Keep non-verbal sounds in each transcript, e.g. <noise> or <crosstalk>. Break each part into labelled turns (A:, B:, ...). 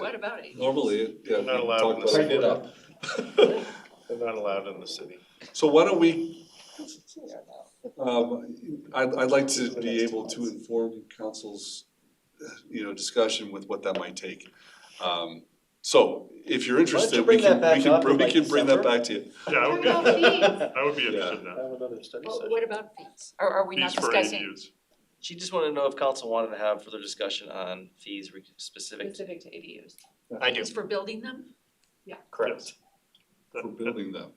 A: what about it?
B: Normally, it- yeah. we
C: Not allowed
B: talk
C: in
B: about it. <laughs>
C: the They're not allowed in the city.
B: So why don't we, um, I'd, I'd like to be able to inform council's, you know, discussion with what that might take. Um, So if you're
D: don't you
B: interested, we
D: bring
B: can,
D: that back
B: we can,
D: up
B: br-
D: in,
B: we
D: like,
B: can bring that
D: December?
B: back to you.
C: Yeah, I
A: What
C: would be,
A: about
C: I
A: fees?
C: would be interested in
D: I
C: that.
D: have another study
A: What,
D: session.
A: what about fees? Or are we not
C: Fees for
A: discussing
C: ADUs.
E: She just wanted to know if council wanted to have further discussion on fees re- specific. to-
A: specific to ADUs?
F: I do,
A: It's for building them?
F: correct.
C: That-
B: For
C: that-
B: building them.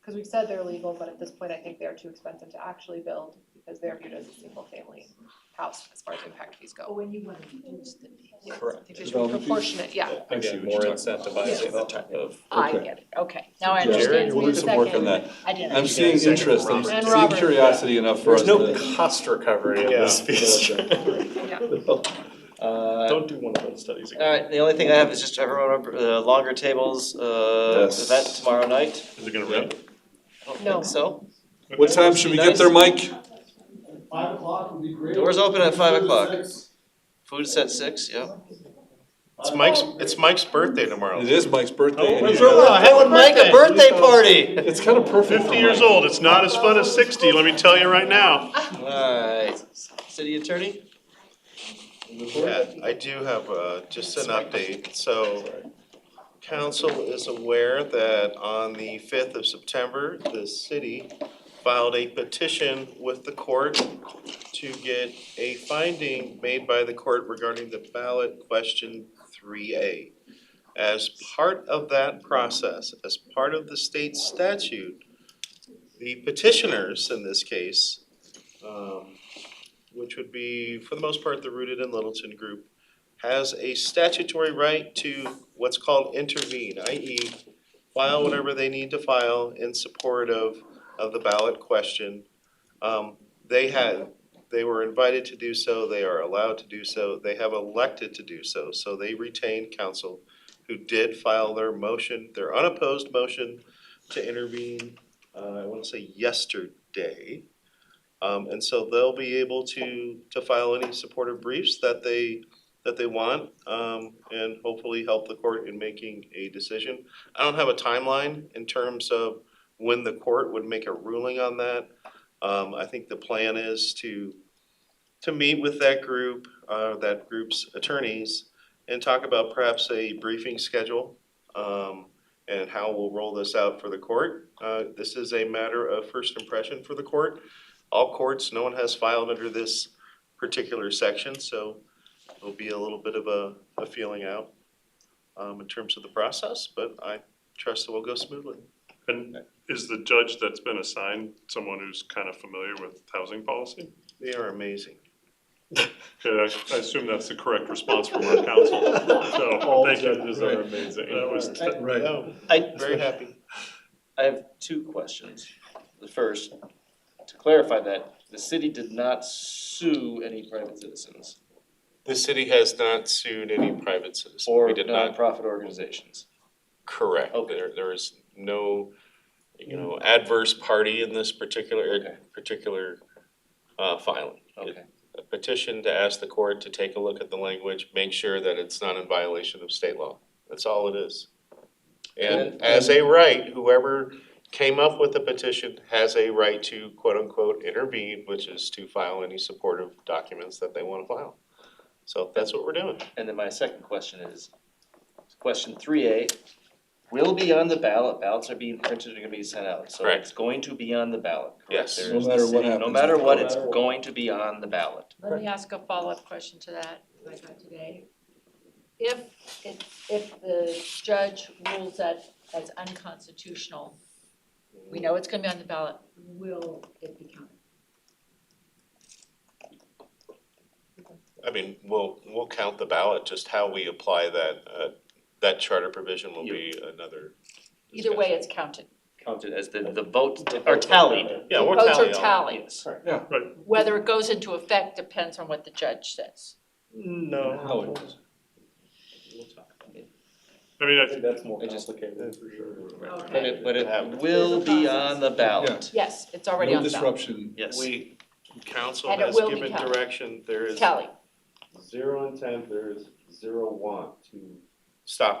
G: Because we've said they're legal, but at this point, I think they're too expensive to actually build because they're viewed as a single-family house as far as impact fees go.
A: when you want to reduce the fees.
G: Yeah.
F: Correct.
A: I think they should be
B: Development fees?
G: Proportionate, yeah,
B: I see
F: Again,
B: what you're
F: more
B: talking about.
F: incentivizing the type of.
A: I
B: Okay.
A: get it, okay, now I
B: Jared,
A: understand.
B: we'll do some work on that.
A: I didn't.
B: I'm seeing
F: second
B: interest, I'm
F: Robert.
G: And
B: seeing
G: Robert.
B: curiosity enough for us
F: There's
B: to.
F: no cost recovery in this
C: Yeah.
F: piece.
G: yeah.
F: Uh,
C: <laughs> Don't do one of those studies
E: All
C: again.
E: right, the only thing I have is just everyone, remember the longer tables, uh,
B: Yes.
E: event tomorrow night.
C: Is it gonna rain?
E: I don't
G: No.
E: think So,
B: What time should we get there, Mike?
H: Five o'clock would be great.
E: doors open at five o'clock,
H: Six.
E: food set six, yeah.
C: It's Mike's, it's Mike's birthday tomorrow.
B: It is Mike's birthday. and
C: when's
B: he's-
C: our-
E: would make a birthday party.
B: It's kind of perfect.
C: Fifty years old, it's not as fun as sixty, let me tell you right now.
E: Alright, city attorney?
C: Yeah, I do have, uh, just an update, so council is aware that on the fifth of September, the city filed a petition with the court to get a finding made by the court regarding the ballot question three A. As part of that process, as part of the state statute, the petitioners in this case, um, which would be for the most part the Rooted in Littleton group, has a statutory right to what's called intervene, i.e. file whatever they need to file in support of, of the ballot question. Um, they had, they were invited to do so, they are allowed to do so, they have elected to do so, so they retained counsel who did file their motion, their unopposed motion to intervene, uh, I wanna say yesterday. Um, and so they'll be able to, to file any supportive briefs that they, that they want, um, and hopefully help the court in making a decision. I don't have a timeline in terms of when the court would make a ruling on that. Um, I think the plan is to, to meet with that group, uh, that group's attorneys and talk about perhaps a briefing schedule, um, and how we'll roll this out for the court. Uh, this is a matter of first impression for the court all courts, no one has filed under this particular section, so it'll be a little bit of a, a feeling out um, in terms of the process, but I trust it will go smoothly.
I: And is the judge that's been assigned someone who's kind of familiar with housing policy?
C: They are amazing.
I: Yeah, I I assume that's the correct response from our council.
F: <laughs>
I: So,
F: All
I: thank you,
F: judges
I: these
F: are
I: are amazing. That was-
F: Right.
C: No,
E: I,
C: Oh, Very happy.
E: I have two questions. The first, to clarify that, the city did not sue any private citizens
D: The city has not sued any private citizens.
E: or
D: We did not,
E: nonprofit organizations.
D: correct.
E: Okay.
D: There, there is no, you know, adverse party in this
E: Okay.
D: particular, particular, uh, filing.
E: Okay,
D: A petition to ask the court to take a look at the language, make sure that it's not in violation of state law. That's all it is. And
E: And-
D: as a right, whoever came up with the petition has a right to quote-unquote intervene, which is to file any supportive documents that they want to file. So that's what we're doing.
E: and then my second question is, question three A, will be on the ballot, ballots are being printed and gonna be sent out, so
D: Correct.
E: it's going to be on the ballot. correct?
D: Yes.
E: There
B: No
E: is the
B: matter what
E: city- No
B: happens.
E: matter what, it's
F: No matter what.
E: going to be on the ballot.
A: Let me ask a follow-up question to that, I got today. If, it- if the judge rules that as unconstitutional, we know it's gonna be on the ballot, will it be counted?
D: I mean, we'll, we'll count the ballot, just how we apply that, uh, that charter provision will be another.
A: Either way, it's counted.
E: Counted as the, the votes are tallied.
D: Yeah, we'll
F: Oh,
A: Votes
D: tally
A: are
D: all.
A: tallied.
I: Right,
A: Whether it goes into effect depends on what the judge says.
B: How
F: No.
B: it is.
I: I mean,
F: I
I: I
F: think that's more
E: I just-
F: complicated for sure.
E: But it, but
D: Yeah.
E: it will be on the ballot.
A: Yes, it's already on the
B: No
A: ballot.
B: disruption.
E: Yes.
D: We, council
A: And it
D: has
A: will be
D: given
A: counted.
D: direction, there is
A: Tally.
D: Oh.
C: Zero intent, there is zero want to stop